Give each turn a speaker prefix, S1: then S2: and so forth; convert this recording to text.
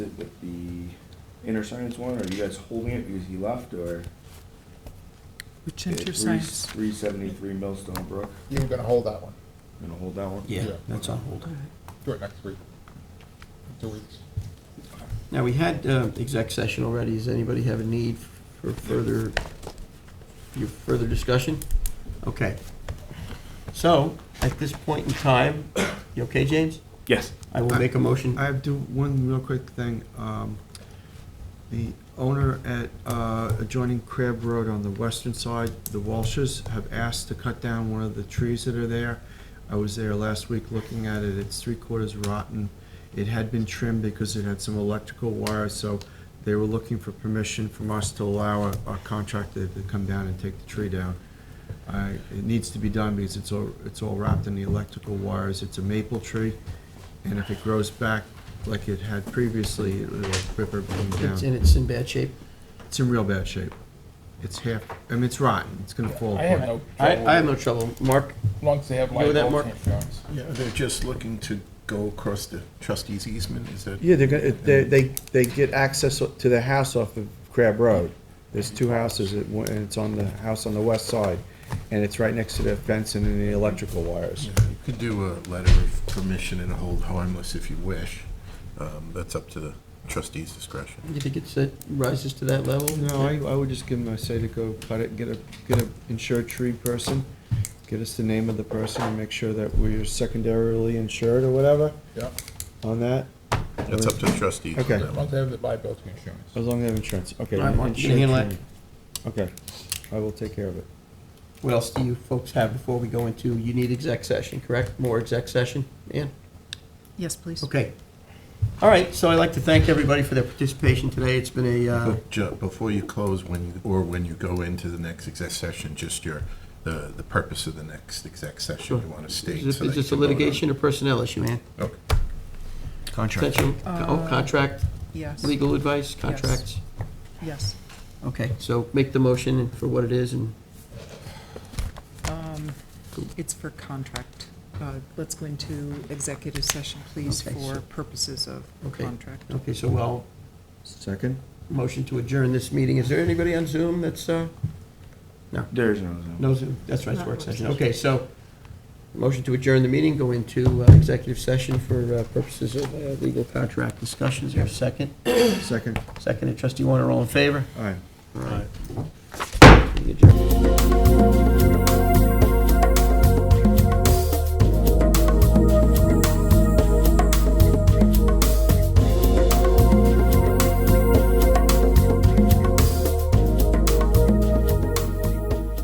S1: Interscience one, or are you guys holding it because he left, or?
S2: Which
S1: Yeah, three-
S2: intersects?
S1: Three seventy-three Millstone Brook,
S3: You were gonna hold that one.
S1: gonna hold that one?
S4: Yeah,
S3: Yeah.
S4: that's on hold.
S3: Do it next week. Two weeks.
S4: Now, we had uh, exec session already. Does anybody have a need for further, your further discussion? Okay. So, at this point in time, you okay, James?
S1: Yes.
S4: I will make a motion.
S5: I have do one real quick thing. Um, The owner at uh, adjoining Crab Road on the western side, the Walshes, have asked to cut down one of the trees that are there. I was there last week looking at it. It's three quarters rotten. It had been trimmed because it had some electrical wires, so they were looking for permission from us to allow our- our contractor to come down and take the tree down. I- It needs to be done because it's all, it's all wrapped in the electrical wires. It's a maple tree. And if it grows back like it had previously, it'll rip everything
S4: It's-
S5: down.
S4: And it's in bad shape.
S5: It's in real bad shape. It's half, I mean, it's rotten, it's gonna fall
S6: I have
S5: apart.
S6: no
S4: I,
S6: trouble,
S4: I have
S6: with-
S4: no trouble. Mark,
S6: as long as they have
S4: You with that,
S6: liability
S4: Mark?
S6: insurance.
S7: Yeah, they're just looking to go across the trustee's easement, is that?
S5: Yeah, they're gonna, they, they, they get access to the house off of Crab Road. There's two houses, it- one- and it's on the house on the west side, and it's right next to the fence and the electrical wires.
S7: Yeah, You could do a letter of permission and hold harmless if you wish. Um, That's up to the trustee's discretion.
S4: you think it's, it rises to that level?
S5: No, I, I would just give them, I say to go cut it, get a, get a insured tree person, get us the name of the person, and make sure that we're secondarily insured or whatever
S3: Yeah,
S5: on that.
S7: That's up to the trustees. on
S5: Okay.
S7: that
S3: as
S7: one.
S3: long as they have the liability insurance.
S5: As long as they have insurance, okay.
S4: All right, Mark, you
S5: insurance
S4: handle that.
S5: training. Okay, I will take care of it.
S4: What else do you folks have before we go into, you need exec session, correct? More exec session, Ann?
S2: Yes, please.
S4: Okay. All right, so I'd like to thank everybody for their participation today. It's been a, uh,
S7: But ju- Before you close, when, you or when you go into the next exec session, just your, the, the purpose of the next exec session you want to state.
S4: is this-
S7: so that
S4: is
S7: you
S4: this a
S7: can vote on it.
S4: litigation or personnel issue, Ann?
S7: Okay.
S4: Potential, oh,
S2: Uh,
S4: contract,
S2: Yes,
S4: legal advice, contracts?
S2: yes.
S4: Okay, so make the motion for what it is and,
S2: Um, It's for contract. Uh, Let's go into executive session, please,
S4: Okay,
S2: for
S4: so-
S2: purposes of
S4: Okay.
S2: contract.
S4: okay, so I'll
S5: Second?
S4: motion to adjourn this meeting. Is there anybody on Zoom that's, uh,
S1: There is no Zoom.
S4: no Zoom? That's right, it's
S2: Not
S4: work
S2: work
S4: session.
S2: session.
S4: Okay, so motion to adjourn the meeting, go into uh, executive session for uh, purposes of uh, legal contract discussions. Is there a second?
S5: Second,
S4: Second, and trustee Warner, all in favor?
S5: all right.
S4: Right.